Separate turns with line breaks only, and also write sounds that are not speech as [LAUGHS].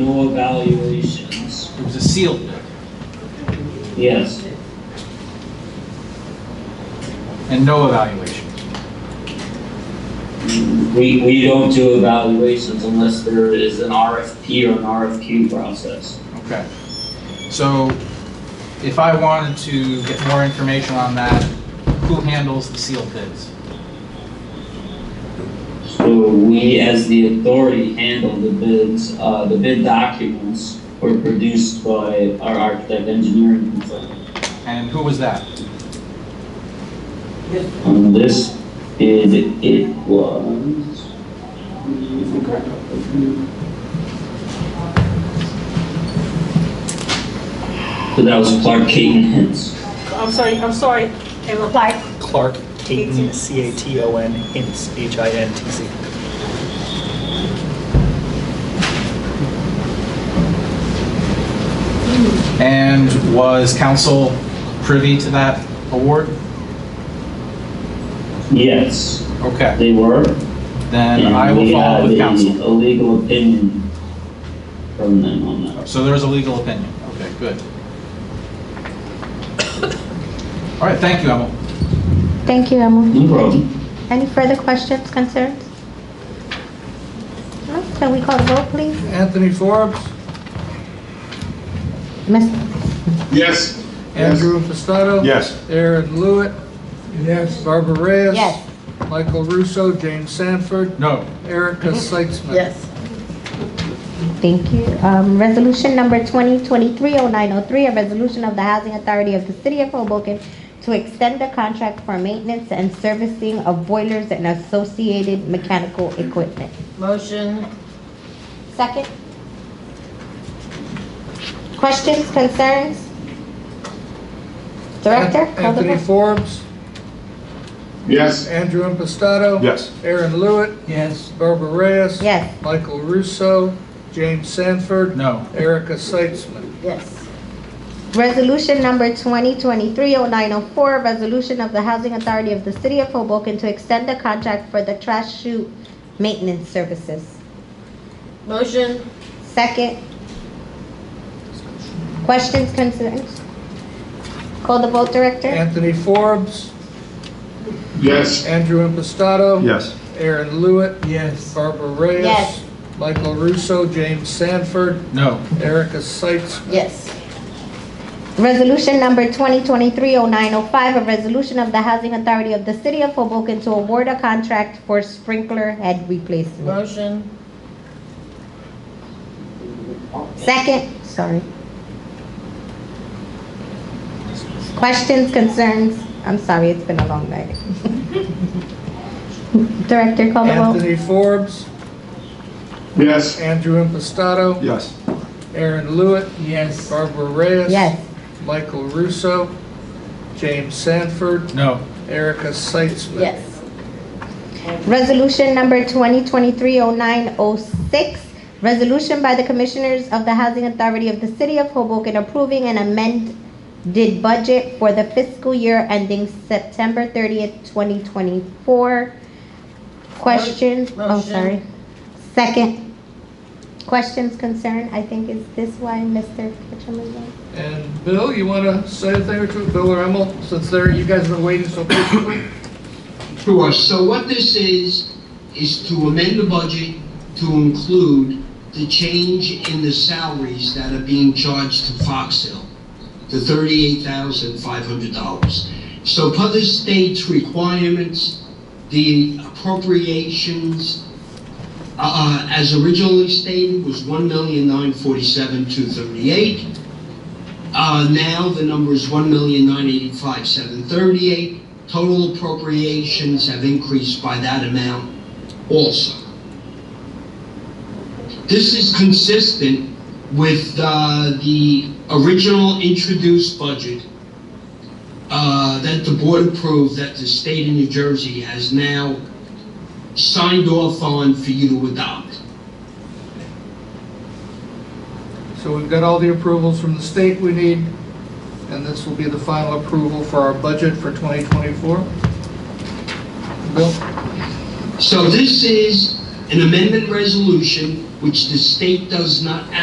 no evaluations.
It was a sealed bid,
Yes,
and no evaluations.
we, we don't do evaluations unless there is an RFP or an RFQ process.
Okay. So if I wanted to get more information on that, who handles the sealed bids?
So we, as the authority, handle the bids, uh, the bid documents were produced by our architect engineering consultant.
And who was that?
On this bid, it was. So that was Clark Caton Hens.
I'm sorry, I'm sorry, in reply,
Clark Caton, C-A-T-O-N, Hintz, H-I-N-T-Z.
And was council privy to that award?
Yes,
Okay,
they were.
then I will
we
follow
have
with
a-
council.
A legal opinion from them on that.
So there is a legal opinion. Okay, good. All right, thank you, Emil.
Thank you, Emily.
No problem.
Any further questions, concerns? No? Can we call the vote, please?
Anthony Forbes?
Miss,
Yes.
Andrew Impastato?
Yes.
Aaron Lewitt? Yes. Barbara Reyes?
yes.
Michael Russo, James Sanford,
No,
Erica Seitzman?
Thank you. Um, resolution number 2023-0903, a resolution of the Housing Authority of the City of Hoboken to extend the contract for maintenance and servicing of boilers and associated mechanical equipment.
Motion,
Second. Questions, concerns? Director?
An-
call the
Anthony
vote.
Forbes?
Yes.
Andrew Impastato?
Yes.
Aaron Lewitt? Yes. Barbara Reyes?
Yes.
Michael Russo, James Sanford?
no.
Erica Seitzman?
yes.
Resolution number 2023-0904, a resolution of the Housing Authority of the City of Hoboken to extend the contract for the trash chute maintenance services.
Motion,
Second. Questions, concerns? Call the vote, Director.
Anthony Forbes?
Yes.
Andrew Impastato?
Yes.
Aaron Lewitt? Yes. Barbara Reyes?
Yes.
Michael Russo, James Sanford,
No.
Erica Seitzman?
yes.
Resolution number 2023-0905, a resolution of the Housing Authority of the City of Hoboken to award a contract for sprinkler head replacement.
Motion,
Second, sorry. Questions, concerns? I'm sorry, it's been a long night. [LAUGHS] Director, call the roll.
Anthony Forbes?
Yes.
Andrew Impastato?
Yes.
Aaron Lewitt? Yes. Barbara Reyes?
Yes.
Michael Russo, James Sanford,
No.
Erica Seitzman.
yes.
Resolution number 2023-0906, resolution by the Commissioners of the Housing Authority of the City of Hoboken approving an amended budget for the fiscal year ending September 30th, 2024. Questions? Oh,
Motion.
sorry. Second. Questions, concern? I think is this why Mr. Ketchum is on?
And Bill, you want to say a thing or two, Bill or Emil, since they're, you guys have been waiting so patiently?
Sure, so what this is, is to amend the budget to include the change in the salaries that are being charged to Fox Hill, the thirty-eight thousand five hundred dollars. So per the state's requirements, the appropriations, uh, as originally stated, was one million nine forty-seven two thirty-eight. Uh, now the number is one million nine eighty-five seven thirty-eight. Total appropriations have increased by that amount also. This is consistent with uh, the original introduced budget uh, that the board approved that the state of New Jersey has now signed off on for you to adopt.
So we've got all the approvals from the state we need, and this will be the final approval for our budget for 2024. Bill?
So this is an amendment resolution which the state does not